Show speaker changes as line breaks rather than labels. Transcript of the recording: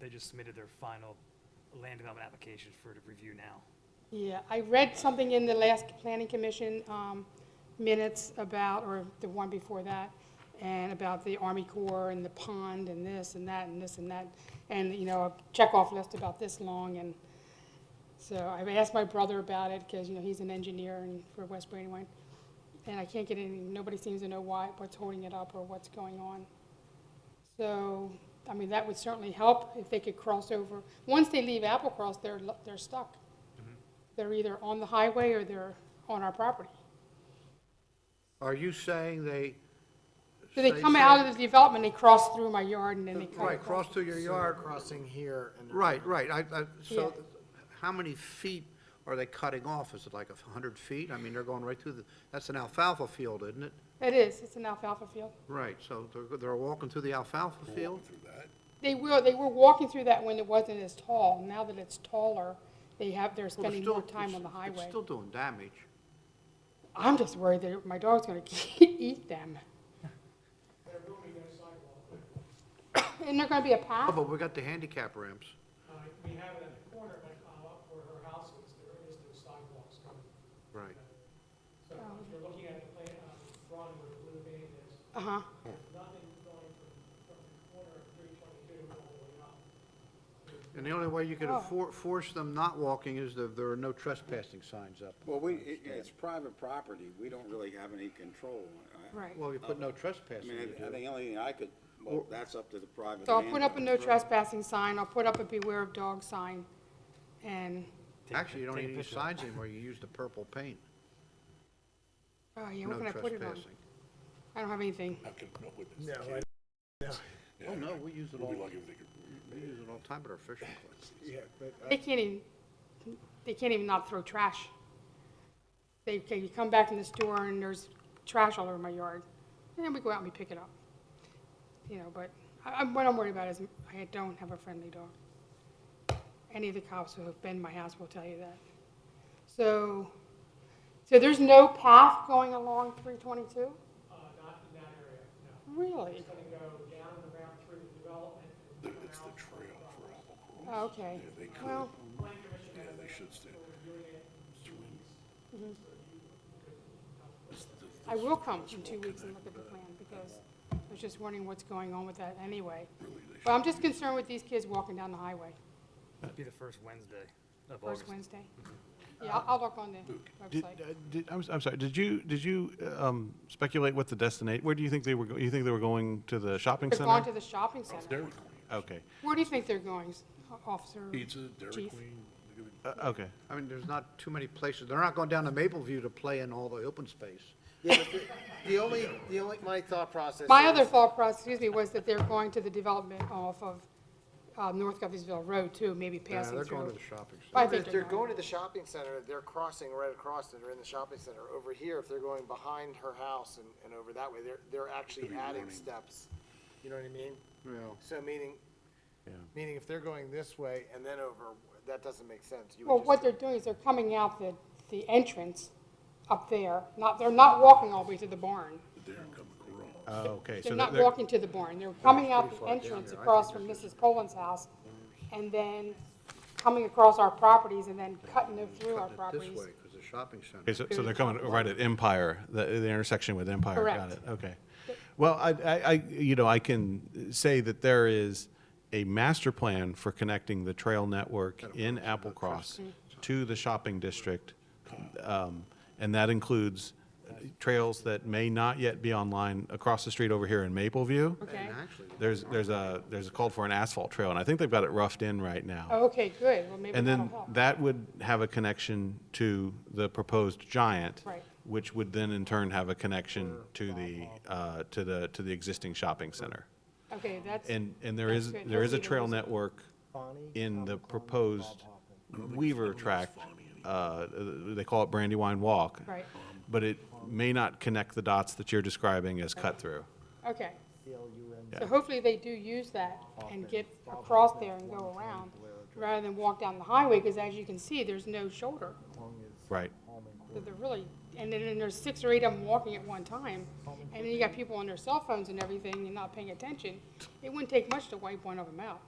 they just submitted their final land development application for to review now.
Yeah, I read something in the last planning commission um, minutes about, or the one before that, and about the Army Corps and the pond and this and that and this and that, and, you know, a checkoff list about this long, and so I asked my brother about it, because, you know, he's an engineer and for West Brandywine, and I can't get any, nobody seems to know why, what's holding it up or what's going on. So, I mean, that would certainly help if they could cross over. Once they leave Applecross, they're, lo- they're stuck. They're either on the highway or they're on our property.
Are you saying they?
So they
say-
come out of the development, they cross through my yard and then they come.
Right, cross through your
So they're
yard,
crossing here and. they're-
right, right, I, I, so,
Yeah.
how many feet are they cutting off? Is it like a hundred feet? I mean, they're going right through the, that's an alfalfa field, isn't it?
It is, it's an alfalfa field.
Right, so they're, they're walking through the alfalfa field?
They were, they were walking through that when it wasn't as tall. Now that it's taller, they have, they're
Well, they're
spending more
still-
time
it's-
on the
It's
highway.
still doing damage.
I'm just worried that my dog's gonna eat them. And they're gonna be a
Oh,
path?
but we got the handicap ramps.
Uh, We have it at the corner by Kyle, where her house is, there is no sidewalks coming.
Right.
So if you're looking at the plan, uh, drawing where the blue vein is,
Uh-huh.
nothing going from, from the corner of three twenty-two all the way up.
And the only way you could
Oh.
enfor- force them not walking is if there are no trespassing signs up.
Well, we, it- it's private property, we don't really have any control. I-
Right.
Well, you put no
I
trespassing.
mean,
you
I- I
do.
think the only thing I could, well, that's up to the private.
So I'll put up a no
landowner.
trespassing sign, I'll put up a beware of dog sign, and,
Take a
Actually, you
pic-
don't
take a
need any
picture.
signs anymore, you use the purple paint.
oh yeah,
No
what can I put it on?
trespassing.
I don't have anything.
No, I,
Oh, no, we use it all, we use it all the time at our fishing clubs.
yeah, but I-
They can't even, they can't even not throw trash. They, okay, you come back in the store and there's trash all over my yard, and then we go out and we pick it up. You know, but I, I'm, what I'm worried about is I don't have a friendly dog. Any of the cops who have been in my house will tell you that. So, so there's no path going along three twenty-two?
Uh, Not in that area, no.
Really?
It's gonna go down and around through the development. It's the trail for
Oh, Okay. Well,
Plan commission. Yeah, they should stay. Reviewing it.
Mm-hmm. I will come in two weeks and look at the plan, because I was just wondering what's going on with that anyway. But I'm just concerned with these kids walking down the highway,
It'd Be the first Wednesday of August.
first Wednesday. Yeah, I'll- I'll look on the
Did,
website.
uh, did, I'm, s- I'm sorry, did you, did you um, speculate what the destination, where do you think they were, go- you think they were going to the shopping
They've
center?
gone to the shopping center.
Dairy Queen.
Okay,
Where do you think they're going, s- uh, Officer?
Pizza, Dairy
Chief?
Queen. they give it-
Uh, okay.
I mean, there's not too many places, they're not going down to Mapleview to play in all the open space.
Yeah, but the- The only, the only, my thought process.
My
is-
other thought process, excuse me, was that they're going to the development off of uh, North Guffeysville Road too, maybe
Yeah,
passing
Uh, they're going to
through.
the shopping
But I
center.
think
If they're
they're
going
going.
to the shopping center, they're crossing right across and they're in the shopping center. Over here, if they're going behind her house and, and over that way, they're, they're actually adding steps. You know what I mean?
Yeah.
So meaning, meaning if they're going this way and then over, that doesn't make sense. You would
Well,
just
what
do-
they're doing is they're coming out the, the entrance up there, not, they're not walking all the way to the barn.
Oh, okay. so
They're not
they're-
walking to the barn, they're coming out the entrance across from Mrs. Poland's house, and then coming across our properties and then cutting them through our
Cutting it This
properties.
way, because the shopping center.
Okay, so, so they're coming right at Empire, the, the intersection with Empire. Got
Correct.
it, okay. Well, I, I, I- you know, I can say that there is a master plan for connecting the trail network in Applecross to the shopping district. um, And that includes trails that may not yet be online across the street over here in Mapleview.
Okay,
And actually,
There's, there's a, there's a call for an asphalt trail, and I think they've got it roughed in right now.
Oh, okay, good, well, maybe
And
that'll
then
help.
that would have a connection to the proposed giant.
Right.
Which would then in turn have a connection to the, uh, to the, to the existing shopping center.
Okay, that's,
And, and there
That's
is,
good.
there is a
Hopefully there
trail
isn't.
network in the proposed Weaver tract. uh, They call it Brandywine Walk.
Right.
But it may not connect the dots that you're describing as cut through.
okay. So hopefully they do use that and get across there and go around, rather than walk down the highway, because as you can see, there's no shoulder.
Right.
So they're really, and then and there's six or eight of them walking at one time, and then you got people on their cell phones and everything and not paying attention. It wouldn't take much to wipe one of them out.